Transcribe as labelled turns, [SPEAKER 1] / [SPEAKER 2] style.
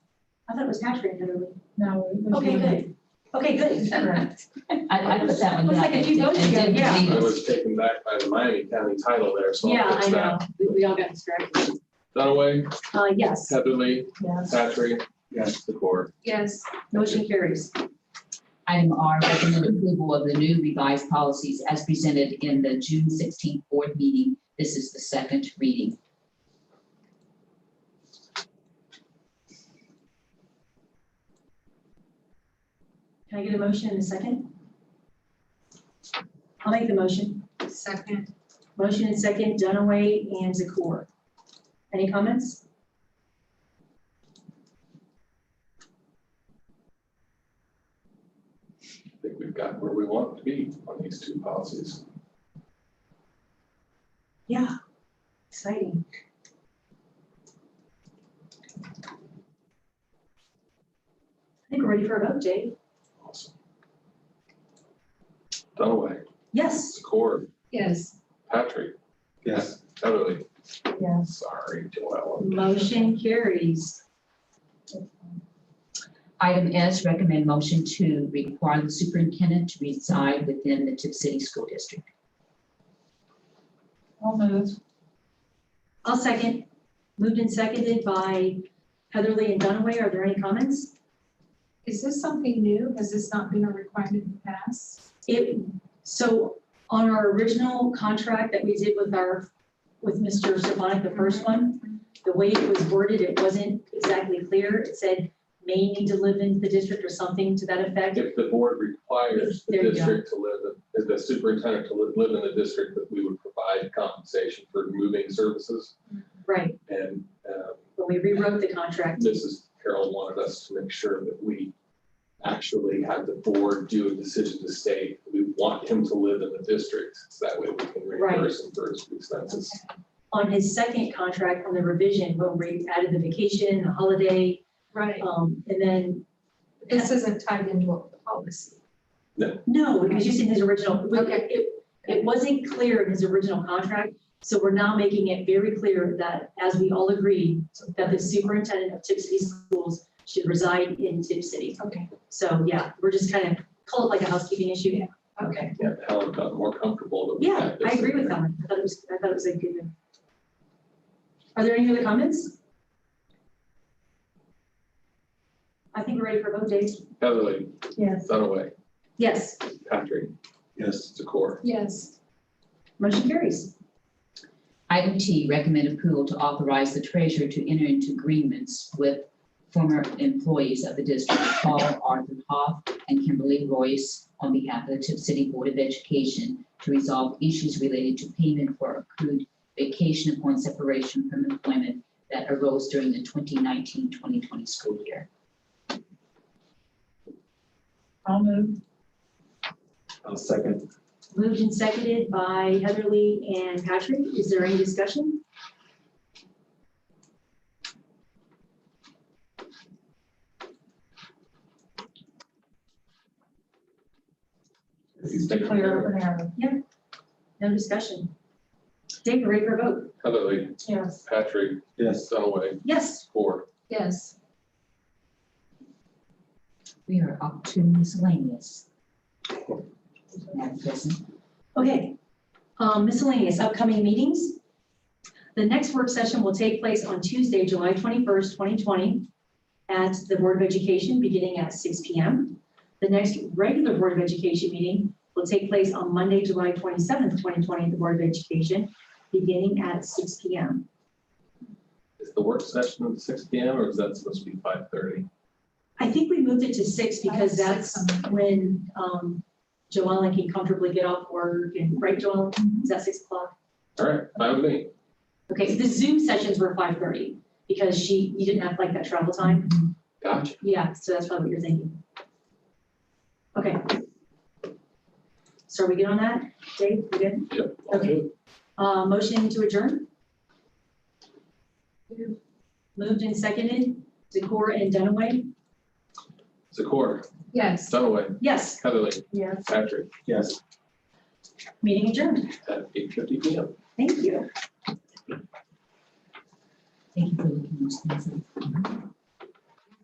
[SPEAKER 1] I thought it was tax rate, never mind.
[SPEAKER 2] No. it was
[SPEAKER 1] Okay,
[SPEAKER 2] not.
[SPEAKER 1] good. Okay, good.
[SPEAKER 2] Correct.
[SPEAKER 3] I, I put that one
[SPEAKER 1] Looks
[SPEAKER 3] down.
[SPEAKER 1] like a few
[SPEAKER 3] I
[SPEAKER 1] notes
[SPEAKER 3] didn't
[SPEAKER 1] here,
[SPEAKER 3] read
[SPEAKER 4] I
[SPEAKER 3] it.
[SPEAKER 4] was taken back by the Miami County title there, so. I'll
[SPEAKER 1] Yeah,
[SPEAKER 4] fix
[SPEAKER 1] I
[SPEAKER 4] that.
[SPEAKER 1] know. We, we all got distracted.
[SPEAKER 4] Dunaway,
[SPEAKER 1] Uh, yes,
[SPEAKER 4] Heatherly,
[SPEAKER 2] Yes.
[SPEAKER 4] Patrick. Yes. The core.
[SPEAKER 1] yes, motion carries.
[SPEAKER 3] Item R, recommend approval of the new revised policies as presented in the June sixteenth board meeting. This is the second reading.
[SPEAKER 1] Can I get a motion in a second? I'll make the motion.
[SPEAKER 5] Second,
[SPEAKER 1] Motion and second, Dunaway and Zakor. Any comments?
[SPEAKER 4] I think we've got where we want to be on these two policies.
[SPEAKER 1] Yeah. Exciting. I think we're ready for a vote, Jay.
[SPEAKER 4] Awesome. Dunaway,
[SPEAKER 1] Yes.
[SPEAKER 4] the core,
[SPEAKER 5] yes,
[SPEAKER 4] Patrick. Yes. Heatherly,
[SPEAKER 2] Yes.
[SPEAKER 4] sorry, Joelle.
[SPEAKER 1] Motion carries.
[SPEAKER 3] Item S, recommend motion to require the superintendent to reside within the Tip City School District.
[SPEAKER 2] I'll move.
[SPEAKER 1] I'll second. Moved and seconded by Heatherly and Dunaway. Are there any comments?
[SPEAKER 5] is this something new? Has this not been a requirement in the past?
[SPEAKER 1] It, so on our original contract that we did with our, with Mr. Sabonic, the first
[SPEAKER 2] Mm-hmm.
[SPEAKER 1] one, the way it was worded, it wasn't exactly clear. It said may need to live in the district or something to that effect.
[SPEAKER 4] If the board requires the
[SPEAKER 1] There you go.
[SPEAKER 4] district to live, in- the superintendent to live, live in the district, that we would provide compensation for moving services.
[SPEAKER 1] Right,
[SPEAKER 4] And, um,
[SPEAKER 1] but we rewrote the contract.
[SPEAKER 4] Mrs. Carroll wanted us to make sure that we actually had the board do a decision to say, we want him to live in the district. So that way we can reimburse him for his expenses.
[SPEAKER 1] On his second contract, on the revision, when we added the vacation, the holiday,
[SPEAKER 5] Right.
[SPEAKER 1] um, and then,
[SPEAKER 5] This isn't tied into a policy.
[SPEAKER 1] no, because you said his original, we-
[SPEAKER 5] Okay.
[SPEAKER 1] it, it wasn't clear in his original contract. So we're now making it very clear that, as we all agree, that the superintendent of Tip City Schools should reside in Tip City.
[SPEAKER 5] Okay,
[SPEAKER 1] So, yeah, we're just kind of, call it like a housekeeping issue.
[SPEAKER 5] okay.
[SPEAKER 4] Yeah, Helen got more comfortable that we
[SPEAKER 1] Yeah,
[SPEAKER 4] had
[SPEAKER 1] I
[SPEAKER 4] this.
[SPEAKER 1] agree with that. I thought it was, I thought it was a good. one. Are there any other comments? I think we're ready for a vote, Dave.
[SPEAKER 4] Heatherly,
[SPEAKER 2] Yes.
[SPEAKER 4] Dunaway,
[SPEAKER 1] Yes,
[SPEAKER 4] Patrick. Yes. Zakor.
[SPEAKER 5] Yes,
[SPEAKER 1] motion carries.
[SPEAKER 3] Item T, recommend approval to authorize the treasurer to enter into agreements with former employees of the district, Paul Arthur Hoff and Kimberly Royce, on behalf of the Tip City Board of Education to resolve issues related to payment for accrued vacation upon separation from employment that arose during the 2019-2020 school year.
[SPEAKER 2] I'll move.
[SPEAKER 6] I'll second.
[SPEAKER 1] Moved and seconded by Heatherly and Patrick. Is there any discussion?
[SPEAKER 2] Just to clear up an error.
[SPEAKER 1] No discussion. Dave, ready for a vote?
[SPEAKER 4] Heatherly,
[SPEAKER 2] Yes.
[SPEAKER 4] Patrick,
[SPEAKER 6] Yes.
[SPEAKER 4] Dunaway,
[SPEAKER 1] Yes.
[SPEAKER 4] Zakor.
[SPEAKER 5] yes.
[SPEAKER 3] We are up to miscellaneous. Madam President.
[SPEAKER 1] Okay. Um, Miscellaneous upcoming meetings. The next work session will take place on Tuesday, July 21st, 2020, at the Board of Education, beginning at 6 PM. The next regular Board of Education meeting will take place on Monday, July 27th, 2020, at the Board of Education, beginning at 6 PM.
[SPEAKER 4] Is the work session at six P M or is that supposed to be five thirty?
[SPEAKER 1] I think we moved it to six because
[SPEAKER 5] Five,
[SPEAKER 1] that's
[SPEAKER 5] six,
[SPEAKER 1] when um, Joellen can comfortably get off work and, right, Joellen? Is that six o'clock?
[SPEAKER 4] All right, five with me.
[SPEAKER 1] Okay, the Zoom sessions were five thirty because she, you didn't have like that travel time.
[SPEAKER 4] Gotcha.
[SPEAKER 1] Yeah, so that's probably what you're thinking. Okay. So are we good on that? Dave, we good?
[SPEAKER 4] Yep.
[SPEAKER 1] Okay. Uh, Motion to adjourn? Moved and seconded, Zakor and Dunaway?
[SPEAKER 4] Zakor,
[SPEAKER 5] Yes.
[SPEAKER 4] Dunaway,
[SPEAKER 1] Yes,
[SPEAKER 4] Heatherly,
[SPEAKER 2] Yes.
[SPEAKER 4] Patrick
[SPEAKER 6] Yes.
[SPEAKER 1] meeting adjourned.
[SPEAKER 4] at eight fifty P M.
[SPEAKER 1] Thank you.
[SPEAKER 3] Thank you for looking into this.